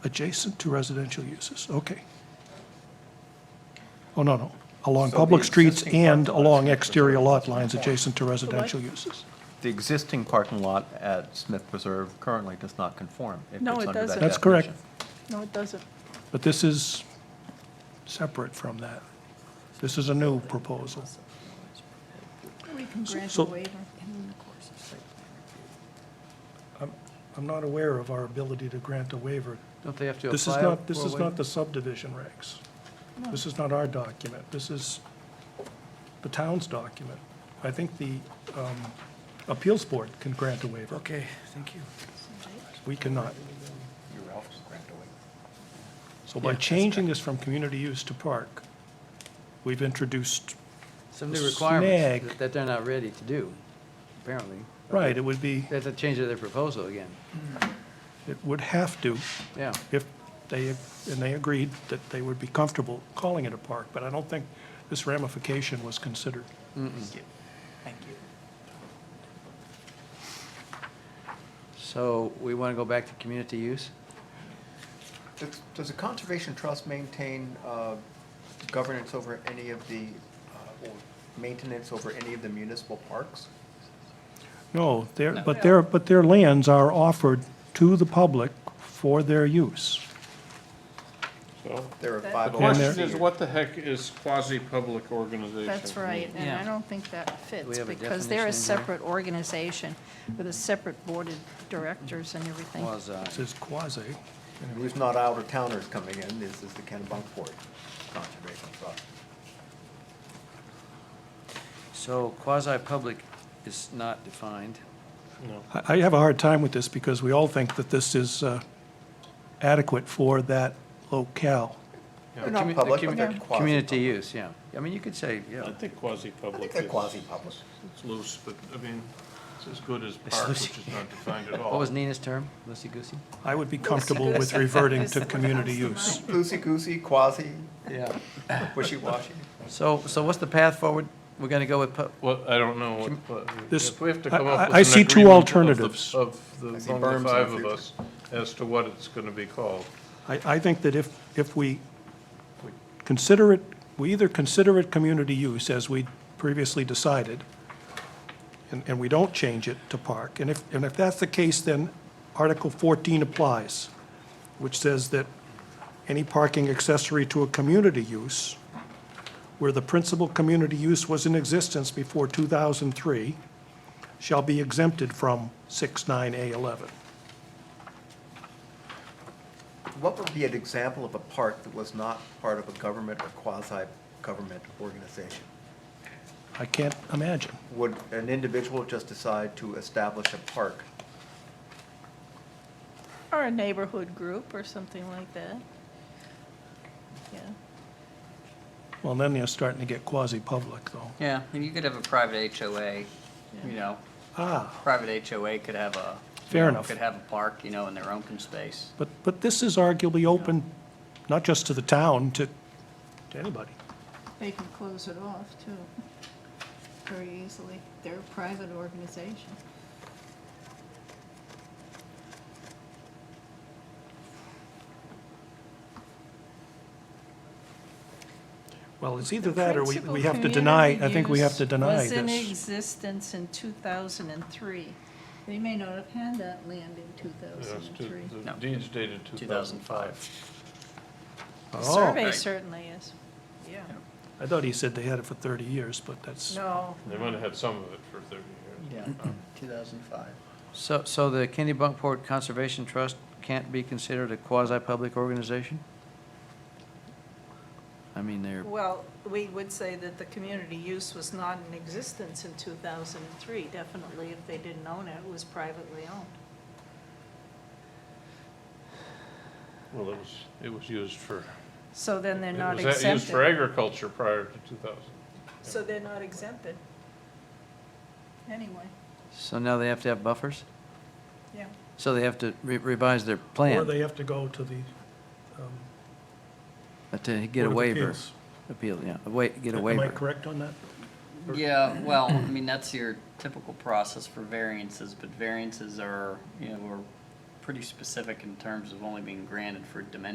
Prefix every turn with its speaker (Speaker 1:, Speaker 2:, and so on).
Speaker 1: Adjacent to residential uses, okay. Oh, no, no, along public streets
Speaker 2: existing
Speaker 1: and
Speaker 2: parking lot's
Speaker 1: along
Speaker 2: gonna
Speaker 1: exterior
Speaker 2: preserve
Speaker 1: lot lines adjacent to residential uses.
Speaker 2: The existing parking lot at Smith Preserve currently does not conform. if
Speaker 3: No,
Speaker 2: it's
Speaker 3: it
Speaker 2: under that
Speaker 3: doesn't.
Speaker 1: That's correct.
Speaker 2: definition.
Speaker 3: No, it doesn't.
Speaker 1: But this is separate from that. This is a new proposal.
Speaker 3: We can grant
Speaker 1: So-
Speaker 3: a waiver.
Speaker 1: I'm not aware of our ability to grant a waiver.
Speaker 4: Don't they have to apply?
Speaker 1: This is not, this
Speaker 4: for a
Speaker 1: is
Speaker 4: waiver?
Speaker 1: not the subdivision regs. This is not our document. This is the town's document. I think the um, appeals board can grant a waiver.
Speaker 4: Okay, thank you.
Speaker 1: We cannot. So by changing this from community use to park, we've introduced,
Speaker 4: Some new requirements
Speaker 1: Snag.
Speaker 4: that- that they're not ready to do, apparently.
Speaker 1: right, it would be,
Speaker 4: They have to change their proposal again,
Speaker 1: it would have to,
Speaker 4: yeah.
Speaker 1: if they, and they agreed that they would be comfortable calling it a park, but I don't think this ramification was considered.
Speaker 4: So we want to go back to community use?
Speaker 5: Does- Does the Conservation Trust maintain uh, governance over any of the, uh, or maintenance over any of the municipal parks?
Speaker 1: No, their, but their, but their lands are offered to the public for their use.
Speaker 6: So,
Speaker 5: There are
Speaker 3: That-
Speaker 5: five.
Speaker 6: the
Speaker 1: And there-
Speaker 6: question is, what the heck is quasi-public organization?
Speaker 3: That's right, and I
Speaker 4: Yeah.
Speaker 3: don't think that
Speaker 4: we
Speaker 3: fits,
Speaker 4: have a
Speaker 3: because they're a
Speaker 4: definition in here?
Speaker 3: separate organization with a separate board of directors and everything.
Speaker 4: Was, uh,
Speaker 1: This is quasi,
Speaker 5: Who's not out of towners coming in, this is the Kennebunkport Conservation Trust.
Speaker 4: so quasi-public is not defined.
Speaker 1: I I have a hard time with this because we all think that this is uh, adequate for that locale.
Speaker 5: They're
Speaker 4: The commu-
Speaker 5: not
Speaker 4: the
Speaker 5: public, but
Speaker 4: commu-
Speaker 5: they're quasi.
Speaker 4: Community use, yeah. I mean, you could say,
Speaker 6: I
Speaker 4: yeah,
Speaker 6: think
Speaker 5: I
Speaker 6: quasi-public
Speaker 5: think they're
Speaker 6: is,
Speaker 5: quasi-public.
Speaker 6: it's loose, but, I mean, it's as good as park,
Speaker 4: loose.
Speaker 6: which is not defined at all.
Speaker 4: what was Nina's term? Loosey-goosey?
Speaker 1: I would be comfortable with reverting to community use.
Speaker 5: Loosey-goosey, quasi,
Speaker 4: Yeah.
Speaker 5: wishy-washy.
Speaker 4: So, so what's the path forward? We're going to go with, pu-
Speaker 6: Well, I don't know what, what-
Speaker 1: This-
Speaker 6: if we have to come
Speaker 1: I- I-
Speaker 6: up with
Speaker 1: I
Speaker 6: an
Speaker 1: see two
Speaker 6: agreement of the-
Speaker 1: alternatives.
Speaker 6: Of the,
Speaker 5: I see berms
Speaker 6: among
Speaker 5: in
Speaker 6: the
Speaker 5: the
Speaker 6: five of
Speaker 5: future.
Speaker 6: us, as to what it's gonna be called.
Speaker 1: I, I think that if, if we consider it, we either consider it community use as we previously decided, and, and we don't change it to park, and if, and if that's the case, then Article 14 applies, which says that any parking accessory to a community use where the principal community use was in existence before 2003 shall be exempted from 69A11.
Speaker 5: What would be an example of a park that was not part of a government or quasi-government organization?
Speaker 1: I can't imagine.
Speaker 5: Would an individual just decide to establish a park?
Speaker 3: Or a neighborhood group or something like that. Yeah,
Speaker 1: Well, then you're starting to get quasi-public, though.
Speaker 7: Yeah, and you could have a private HOA, you know,
Speaker 1: Ah,
Speaker 7: private HOA could have a. you
Speaker 1: Fair
Speaker 7: know,
Speaker 1: enough.
Speaker 7: Could have a park, you know, in their open space.
Speaker 1: but, but this is arguably open, not just to the town, to, to anybody.
Speaker 3: they can close it off, too, very easily. They're a private organization.
Speaker 1: Well, it's either that, or we, we have to deny, I think we have to deny
Speaker 3: Was in
Speaker 1: this.
Speaker 3: existence in 2003. They may not have had that land in
Speaker 6: Yes, to-
Speaker 3: 2003.
Speaker 6: The
Speaker 7: No.
Speaker 6: deeds dated two thousand five.
Speaker 7: 2005.
Speaker 3: The
Speaker 1: Oh.
Speaker 3: survey certainly is, yeah.
Speaker 1: I thought he said they had it for 30 years, but that's,
Speaker 3: No.
Speaker 6: They might have had some of it for thirty years.
Speaker 7: Yeah, 2005.
Speaker 4: so, so the Kennebunkport Conservation Trust can't be considered a quasi-public organization? I mean, they're,
Speaker 3: Well, we would say that the community use was not in existence in 2003, definitely if they didn't own it, it was privately owned.
Speaker 6: Well, it was, it was used for,
Speaker 3: So then they're
Speaker 6: it
Speaker 3: not
Speaker 6: was used for
Speaker 3: exempted.
Speaker 6: agriculture prior to two thousand.
Speaker 3: So they're not exempted. Anyway,
Speaker 4: so now they have to have buffers?
Speaker 3: yeah.
Speaker 4: So they have to re- revise their
Speaker 1: or
Speaker 4: plan
Speaker 1: they have to go to the. um,
Speaker 4: to get a
Speaker 1: Board of
Speaker 4: waiver.
Speaker 1: Appeals.
Speaker 4: Appeal, yeah, a wa- get a
Speaker 1: Am I
Speaker 4: waiver.
Speaker 1: correct on that?
Speaker 7: Yeah, well, I mean, that's your typical process for variances, but variances are, you know, are pretty specific in terms of only being granted for dimensional